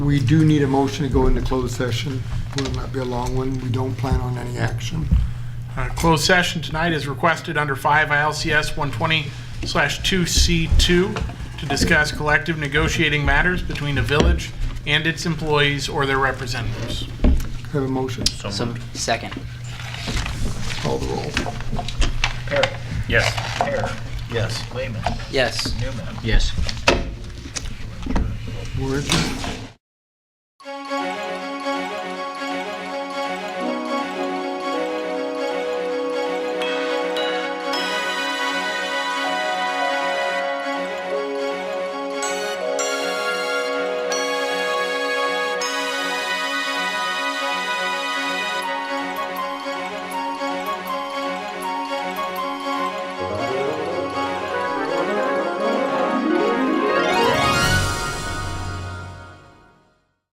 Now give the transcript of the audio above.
we do need a motion to go into closed session. Will not be a long one. We don't plan on any action. Uh, Closed session tonight is requested under 5 ILCS 120/2C2 to discuss collective negotiating matters between the village and its employees or their representatives. Have a motion. So Second. Call the roll. Parrot. Yes. Parrot. Yes. Lehman. Yes. Newman. Yes. We're adjourned.